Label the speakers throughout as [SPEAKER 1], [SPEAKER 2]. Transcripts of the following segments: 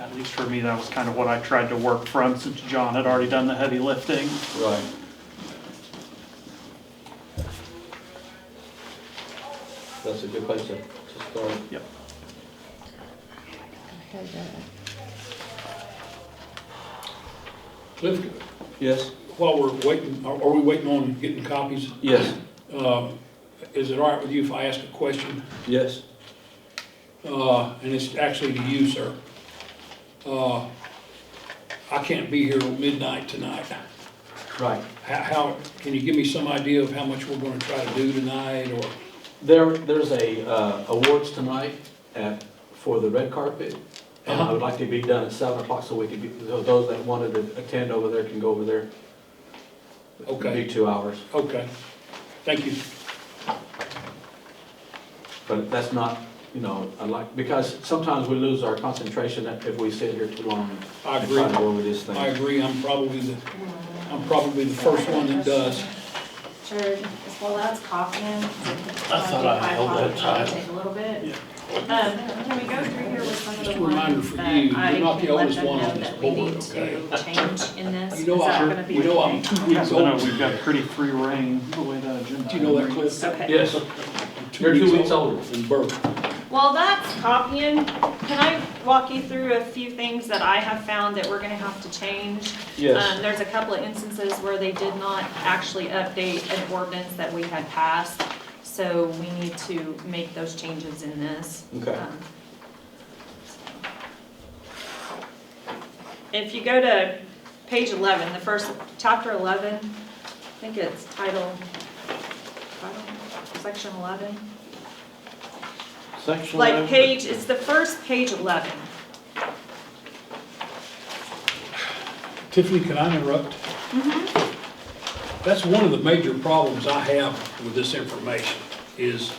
[SPEAKER 1] At least for me, that was kind of what I tried to work from since John had already done the heavy lifting.
[SPEAKER 2] Right. That's a good place to, to start.
[SPEAKER 1] Yep.
[SPEAKER 3] Cliff,
[SPEAKER 2] Yes?
[SPEAKER 3] while we're waiting, are are we waiting on getting copies?
[SPEAKER 2] Yes.
[SPEAKER 3] Uh, Is it all right with you if I ask a question?
[SPEAKER 2] Yes?
[SPEAKER 3] Uh, And it's actually to you, sir. Uh, I can't be here till midnight tonight.
[SPEAKER 2] Right.
[SPEAKER 3] How- How, can you give me some idea of how much we're going to try to do tonight, or?
[SPEAKER 2] There, there's a, uh, awards tonight at, for the red carpet. And I would like to be done at seven o'clock so we could be, so those that wanted to attend over there can go over there.
[SPEAKER 3] Okay.
[SPEAKER 2] Be two hours,
[SPEAKER 3] Okay, thank you.
[SPEAKER 2] but that's not, you know, I like, because sometimes we lose our concentration if we sit here too long.
[SPEAKER 3] I
[SPEAKER 2] and
[SPEAKER 3] agree.
[SPEAKER 2] try to go over this thing.
[SPEAKER 3] I agree, I'm probably the, I'm probably the first one that does.
[SPEAKER 4] Jared, as well as coffee in.
[SPEAKER 5] I thought I held that tight.
[SPEAKER 4] Take a little bit. Um, can we go through here with some of
[SPEAKER 3] Just
[SPEAKER 4] the
[SPEAKER 3] a reminder
[SPEAKER 4] ones
[SPEAKER 3] for
[SPEAKER 4] that
[SPEAKER 3] you, you're
[SPEAKER 4] I
[SPEAKER 3] not the
[SPEAKER 4] can let
[SPEAKER 3] oldest
[SPEAKER 4] them
[SPEAKER 3] one on
[SPEAKER 4] know
[SPEAKER 3] this
[SPEAKER 4] that we
[SPEAKER 3] board,
[SPEAKER 4] need to change in this?
[SPEAKER 3] You know,
[SPEAKER 4] Is that
[SPEAKER 3] I,
[SPEAKER 4] gonna be
[SPEAKER 3] you know,
[SPEAKER 4] okay?
[SPEAKER 3] I'm two
[SPEAKER 1] Yeah,
[SPEAKER 3] weeks
[SPEAKER 1] but no,
[SPEAKER 3] old.
[SPEAKER 1] we've got pretty free reign the way that agenda.
[SPEAKER 3] Do you know that,
[SPEAKER 1] item
[SPEAKER 3] Cliff?
[SPEAKER 1] reads.
[SPEAKER 4] Okay.
[SPEAKER 2] Yes, you're two weeks older.
[SPEAKER 3] In birth.
[SPEAKER 4] While that's copying, can I walk you through a few things that I have found that we're gonna have to change? Um, there's a couple of instances where they did not actually update an ordinance that we had passed, so we need to make those changes in this.
[SPEAKER 2] Okay.
[SPEAKER 4] Um, If you go to page eleven, the first, chapter eleven, I think it's title, title, section eleven.
[SPEAKER 2] Section.
[SPEAKER 4] Like page, it's the first page eleven.
[SPEAKER 3] Tiffany, can I interrupt?
[SPEAKER 4] Mm-hmm.
[SPEAKER 3] That's one of the major problems I have with this information, is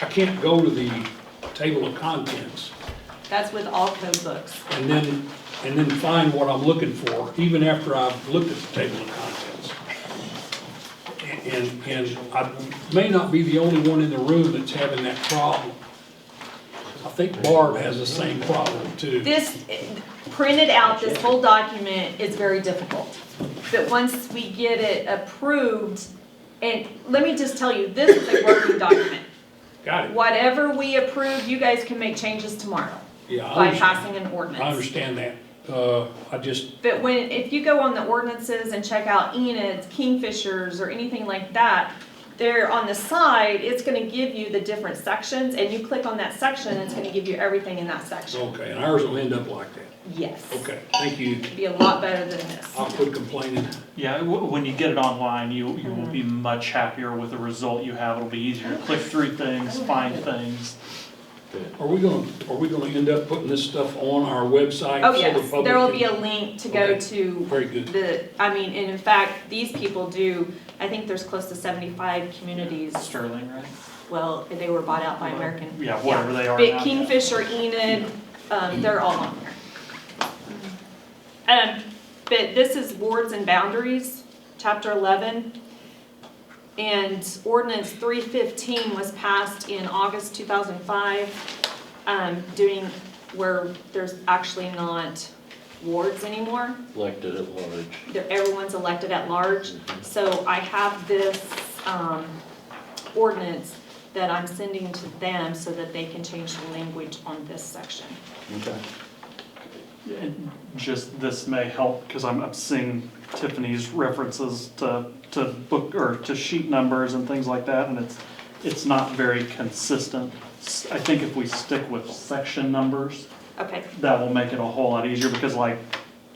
[SPEAKER 3] I can't go to the table of contents
[SPEAKER 4] That's with all code books.
[SPEAKER 3] and then, and then find what I'm looking for, even after I've looked at the table of contents. And, and I may not be the only one in the room that's having that problem. I think Barb has the same problem too.
[SPEAKER 4] This, printed out, this whole document is very difficult. But once we get it approved, and let me just tell you, this is a working document.
[SPEAKER 3] Got it?
[SPEAKER 4] Whatever we approve, you guys can make changes tomorrow
[SPEAKER 3] Yeah, I
[SPEAKER 4] by
[SPEAKER 3] understand,
[SPEAKER 4] passing an
[SPEAKER 3] I
[SPEAKER 4] ordinance.
[SPEAKER 3] understand that. Uh, I just,
[SPEAKER 4] But when, if you go on the ordinances and check out Enid's, Kingfishers, or anything like that, there on the side, it's gonna give you the different sections, and you click on that section, and it's gonna give you everything in that section.
[SPEAKER 3] Okay, and ours will end up like that.
[SPEAKER 4] Yes.
[SPEAKER 3] Oh, Okay, thank you.
[SPEAKER 4] It'd Be a lot better than this.
[SPEAKER 3] I'll quit complaining.
[SPEAKER 1] Yeah, w- when you get it online, you, you will be much happier with the result you have. It'll be easier to click through things, find things.
[SPEAKER 3] Are we gonna, are we gonna end up putting this stuff on our website?
[SPEAKER 4] Oh,
[SPEAKER 3] so the
[SPEAKER 4] yes,
[SPEAKER 3] public
[SPEAKER 4] there will
[SPEAKER 3] can-
[SPEAKER 4] be a link to go
[SPEAKER 3] Okay.
[SPEAKER 4] to
[SPEAKER 3] Very good.
[SPEAKER 4] the, I mean, and in fact, these people do, I think there's close to seventy-five communities.
[SPEAKER 1] Sterling, right?
[SPEAKER 4] Well, they were bought out by American.
[SPEAKER 1] Yeah, whatever they are now.
[SPEAKER 4] But
[SPEAKER 1] yeah.
[SPEAKER 4] Kingfisher, Enid, um, they're all on there. Um, but this is wards and boundaries, chapter eleven. And ordinance three fifteen was passed in August two thousand five, um, doing where there's actually not wards anymore.
[SPEAKER 5] elected at large. Mm-hmm.
[SPEAKER 4] They're- everyone's elected at large. So I have this, um, ordinance that I'm sending to them so that they can change the language on this section.
[SPEAKER 2] Okay.
[SPEAKER 1] And Just, this may help, because I'm, I'm seeing Tiffany's references to, to book, or to sheet numbers and things like that, and it's, it's not very consistent. S- I think if we stick with section numbers,
[SPEAKER 4] Okay,
[SPEAKER 1] that will make it a whole lot easier, because like,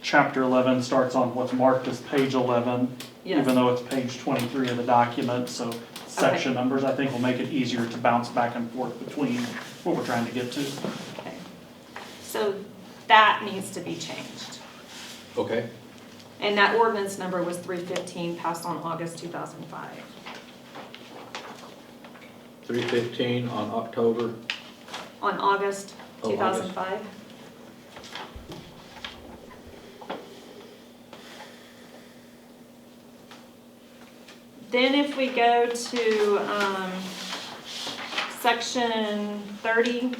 [SPEAKER 1] chapter eleven starts on what's marked as page eleven,
[SPEAKER 4] yes,
[SPEAKER 1] even though it's page twenty-three of the document, so section numbers, I think, will make it easier to bounce back and forth between what we're trying to get to.
[SPEAKER 4] okay. So that needs to be changed.
[SPEAKER 2] Okay.
[SPEAKER 4] And that ordinance number was three fifteen, passed on August two thousand five.
[SPEAKER 2] Three fifteen on October.
[SPEAKER 4] On August
[SPEAKER 2] Oh,
[SPEAKER 4] two
[SPEAKER 2] August.
[SPEAKER 4] thousand five? Then if we go to, um, section thirty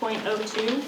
[SPEAKER 4] point oh two,